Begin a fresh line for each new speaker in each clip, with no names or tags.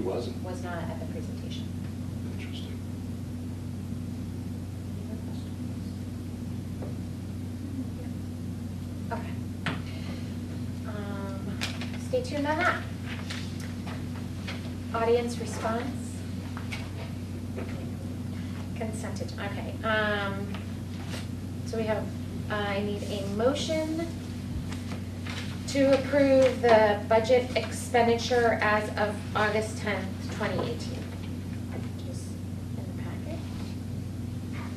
wasn't?
was not at the presentation.
Interesting.
Okay. Um, Stay tuned on that. Audience response? Consent, ag- okay. um, So we have, I need a motion to approve the budget expenditure as of August 10th, 2018. Which is in the packet.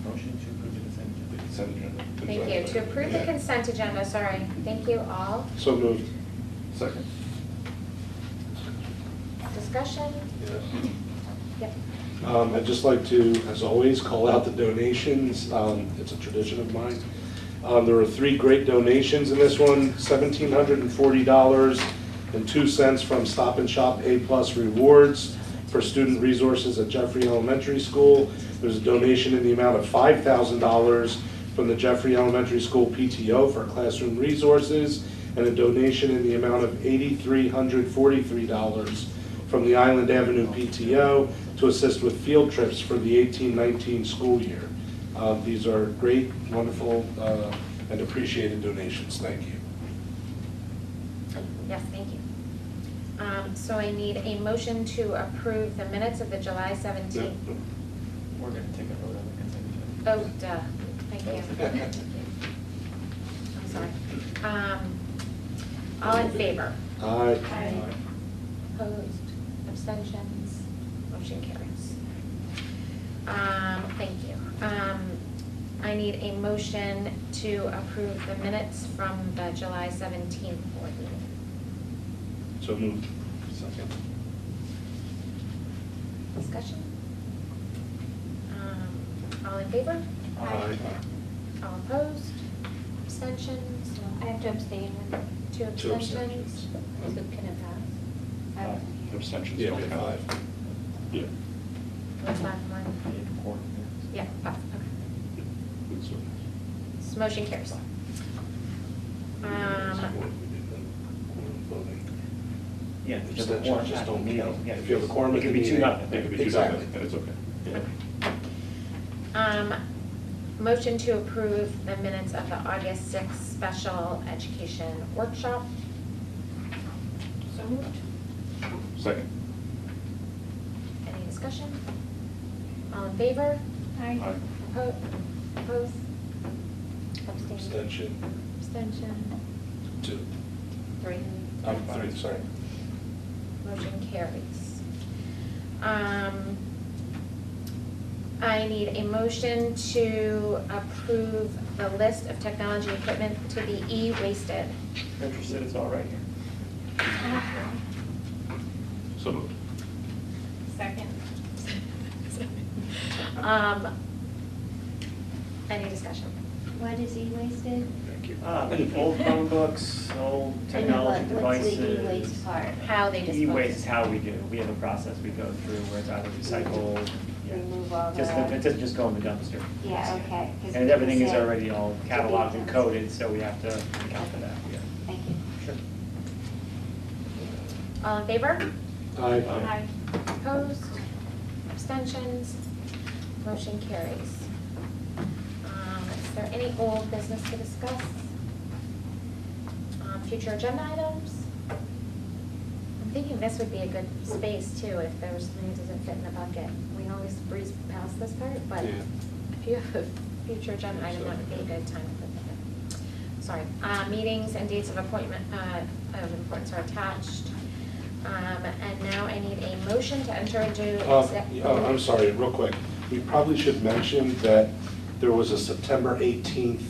Motion to approve the consent agenda.
Consent agenda.
Thank you. To approve the
Yeah.
consent agenda, sorry. Thank you all.
So moved. Second.
Discussion? Yep.
Um, I'd just like to, as always, call out the donations. Um, It's a tradition of mine. Um, There were three great donations in this one, $1,740.02 from Stop and Shop A-plus Rewards for student resources at Jeffrey Elementary School. There's a donation in the amount of $5,000 from the Jeffrey Elementary School PTO for classroom resources, and a donation in the amount of $8,343 from the Island Avenue PTO to assist with field trips for the 18-19 school year. Uh, These are great, wonderful, uh, and appreciated donations. Thank you.
Yes, thank you. Um, So I need a motion to approve the minutes of the July 17th.
We're gonna take a vote on the consent
Oh,
agenda.
duh. Thank you. I'm sorry. Um, All in favor?
Aye.
Aye. Opposed? Abstentions? Motion carries. Um, Thank you. Um, I need a motion to approve the minutes from the July 17th board meeting.
So moved.
Second.
Discussion? Um, All in favor?
Aye.
All opposed? Abstentions?
I have to abstain when
Two
Two
abstentions?
Luke can have
Aye.
passed.
Abstentions
Yeah,
don't
we
count.
have five.
Yeah.
What's that one?
Need quorum here.
Yeah, five, okay. So Motion carries. Um,
Yeah. if there's a
Abstentions
quorum,
just
I
don't
think,
count.
yeah,
If you have a quorum
It
at the
could be two,
meeting,
nothing.
It could be two
Exactly.
separate, That's okay.
um, Motion to approve the minutes of the August 6th special education workshop.
So moved.
Second.
Any discussion? All in favor?
Aye.
Oppo- Opposed? Abstained?
Abstention,
Abstention?
two. Oh,
Three?
I'm three, sorry.
Motion carries. Um, I need a motion to approve the list of technology equipment to be e-wasted.
If you're Interested, it's all right here.
So moved.
Second.
Um, Any discussion?
What is e-wasted?
Thank you.
Ah, old Chromebooks, old technology
And what-
devices.
What's the e-waste part?
How they dispose?
E-waste is how we do, we have a process we go through where it's either recycled, yeah.
Remove all
Just,
the-
it doesn't just go in the dumpster.
Yeah, okay, 'cause
And
people
everything is
say
already all
to be
cataloged and
dumped.
coded, so we have to account for that, yeah.
Thank you.
Sure.
All in favor?
Aye.
Opposed? Abstentions? Motion carries. Um, Is there any old business to discuss? Um, Future agenda items? I'm thinking this would be a good space too, if there was something that doesn't fit in the bucket. We always breeze past this part, but
Yeah.
if you have a future agenda item, that would be a good time to put that in. Sorry, Uh, meetings and dates of appointment, uh, of importance are attached. Um, And now I need a motion to enter into.
Uh,
exec-
yeah, oh, I'm sorry, real quick. We probably should mention that there was a September 18th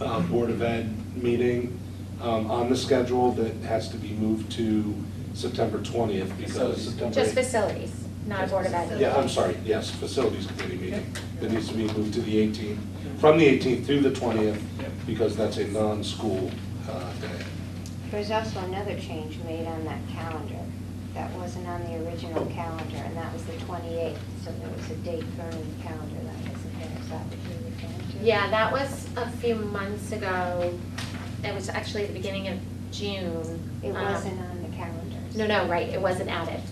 uh, Board of Ed meeting um, on the schedule that has to be moved to September 20th because
Facilities.
September.
Just
18th
facilities, not a Board of Ed.
Yeah, I'm sorry, yes, Facilities Committee meeting that needs to be moved to the 18th, from the 18th through the 20th,
Yep.
because that's a non-school uh, day.
There's also another change made on that calendar that wasn't on the original calendar, and that was the 28th, so there was a date thrown in the calendar that wasn't there, is that what you're referring to?
Yeah, that was a few months ago. It was actually the beginning of June.
It
Um,
wasn't uh, on the calendar.
No, no, right, it wasn't added.